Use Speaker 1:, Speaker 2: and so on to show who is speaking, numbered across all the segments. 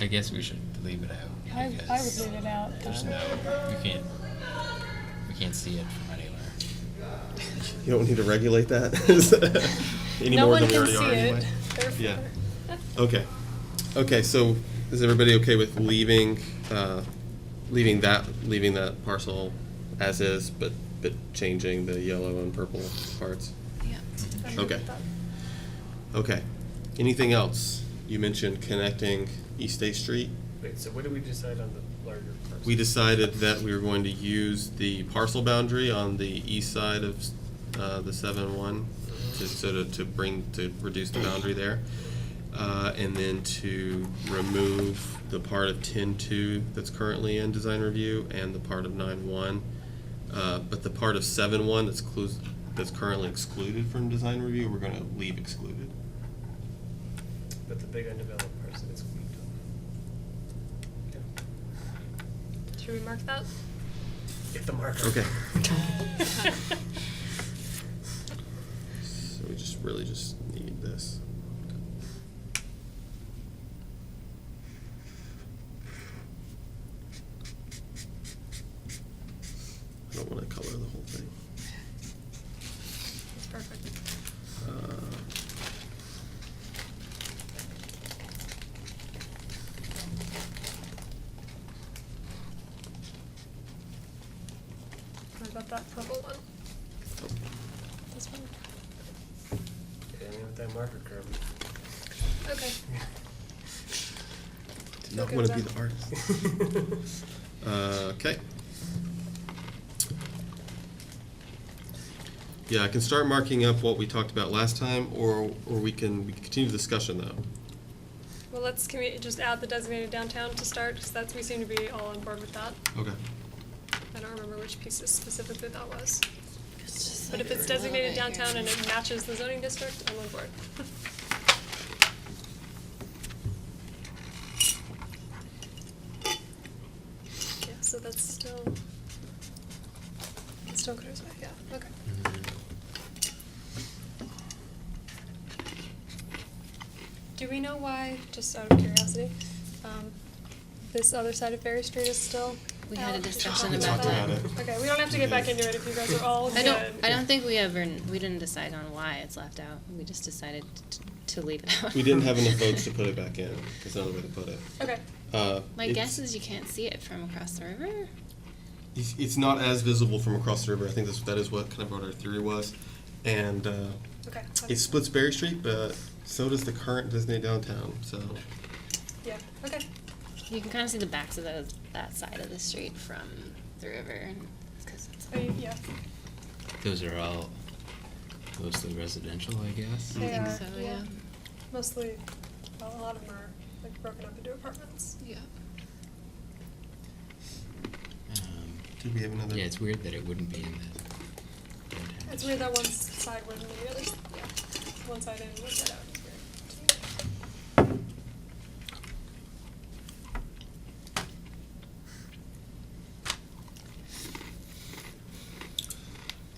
Speaker 1: I guess we should leave it out.
Speaker 2: I, I would
Speaker 1: because
Speaker 2: leave it out.
Speaker 1: There's no, you can't, we can't see it from anywhere.
Speaker 3: You don't need to regulate that any
Speaker 2: No
Speaker 3: more
Speaker 2: one
Speaker 3: than we
Speaker 2: can
Speaker 3: already
Speaker 2: see
Speaker 3: are
Speaker 2: it,
Speaker 3: anyway. Yeah.
Speaker 2: therefore.
Speaker 3: Okay. Okay. So is everybody okay with leaving, uh, leaving that, leaving that parcel as is, but but changing the yellow and purple parts?
Speaker 2: Yeah. I'm good
Speaker 3: Okay.
Speaker 2: with that.
Speaker 3: Okay. Anything else? You mentioned connecting East Eighth Street.
Speaker 4: Wait, so what did we decide on the larger parcel?
Speaker 3: We decided that we were going to use the parcel boundary on the east side of uh, the seven one to sort of to bring, to reduce the boundary there. Uh, And then to remove the part of ten two that's currently in design review and the part of nine one. uh, But the part of seven one that's clus, that's currently excluded from design review, we're gonna leave excluded.
Speaker 4: But the big undeveloped parcel is weak.
Speaker 5: Should we mark that?
Speaker 4: Get the marker.
Speaker 3: Okay. So we just really just need this. I don't want to color the whole thing.
Speaker 5: It's perfect.
Speaker 3: Uh,
Speaker 5: What about that purple one?
Speaker 3: oh,
Speaker 2: This one?
Speaker 4: Yeah, I mean, with that marker curve.
Speaker 5: Okay.
Speaker 3: Did not
Speaker 5: Okay,
Speaker 3: want to be
Speaker 5: done.
Speaker 3: the artist. Uh, okay. Yeah, I can start marking up what we talked about last time, or, or we can, we can continue the discussion though.
Speaker 5: Well, let's, can we just add the designated downtown to start? Because that's, we seem to be all on board with that.
Speaker 3: Okay.
Speaker 5: I don't remember which pieces specifically that was. But if it's designated downtown and it matches the zoning district, I'm on board. Yeah, so that's still, it's still Cruz Way, yeah, okay. Do we know why, just out of curiosity, um, this other side of Ferry Street is still
Speaker 6: We had a
Speaker 5: out?
Speaker 6: discussion
Speaker 3: We about talked that. about it.
Speaker 5: Okay, we don't have to get back into it if you guys are all
Speaker 6: I
Speaker 5: good.
Speaker 6: don't, I don't think we ever, we didn't decide on why it's left out. We just decided t- to leave it out.
Speaker 3: We didn't have enough votes to put it back in, that's another way to put it.
Speaker 5: Okay,
Speaker 3: Uh,
Speaker 6: My
Speaker 3: it's-
Speaker 6: guess is you can't see it from across the river.
Speaker 3: It's, it's not as visible from across the river, I think that's, that is what kind of what our theory was. And, uh,
Speaker 5: okay.
Speaker 3: it splits Berry Street, but so does the current Disney downtown, so.
Speaker 5: Yeah, okay,
Speaker 6: You can kind of see the backs of those, that side of the street from the river. and- 'cause it's-
Speaker 5: Are you- yeah.
Speaker 1: Those are all mostly residential, I guess.
Speaker 6: I
Speaker 5: They
Speaker 6: think
Speaker 5: are,
Speaker 6: so, yeah.
Speaker 5: Mostly, well, a lot of them are like broken up into apartments.
Speaker 6: Yeah.
Speaker 1: Um,
Speaker 3: Did we have another?
Speaker 1: Yeah, it's weird that it wouldn't be in the downtown.
Speaker 5: It's weird that one side wasn't in the other, s- yeah, one side in, and one side out, it's weird.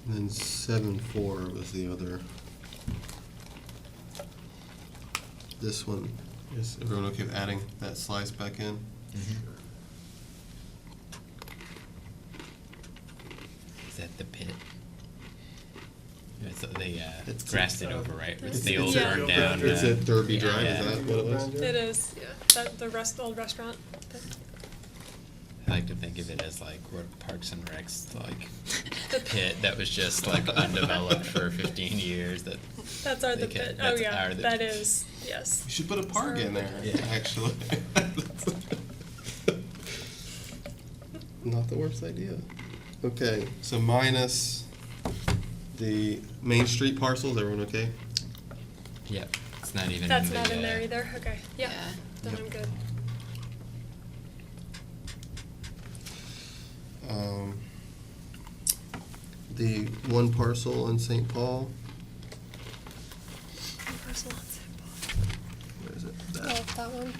Speaker 3: And then seven four was the other. This one, is everyone okay with adding that slice back in?
Speaker 1: Mhm. Is that the pit? It's, they uh,
Speaker 3: It's-
Speaker 1: grassed it over, right? It's
Speaker 5: It's-
Speaker 1: the
Speaker 5: it's
Speaker 1: old
Speaker 5: a-
Speaker 1: burned down.
Speaker 4: Yeah.
Speaker 3: Is it
Speaker 1: uh,
Speaker 3: Derby Drive,
Speaker 1: yeah.
Speaker 3: is that what it was?
Speaker 5: It is, yeah, that, the rest, old restaurant, the,
Speaker 1: I like to think of it as like what Parks and Rec's like pit that was just like undeveloped for 15 years. That
Speaker 5: that's our,
Speaker 1: They
Speaker 5: the
Speaker 1: can-
Speaker 5: pit, oh
Speaker 1: that's
Speaker 5: yeah,
Speaker 1: our- the-
Speaker 5: that is, yes.
Speaker 3: We should put a park in there,
Speaker 1: Yeah.
Speaker 3: actually. Not the worst idea. Okay, so minus the Main Street parcels, everyone okay?
Speaker 1: yep, it's not even.
Speaker 5: That's
Speaker 1: in the,
Speaker 5: not in there
Speaker 1: uh,
Speaker 5: either, okay, yeah,
Speaker 6: Yeah.
Speaker 5: then
Speaker 3: Yep.
Speaker 5: I'm good.
Speaker 3: Um, The one parcel in St. Paul,
Speaker 5: One parcel on St. Paul.
Speaker 3: where is it? That.
Speaker 5: Oh, that one.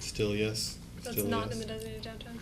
Speaker 3: Still yes?
Speaker 5: That's
Speaker 3: Still
Speaker 5: not
Speaker 3: yes.
Speaker 5: in the designated downtown.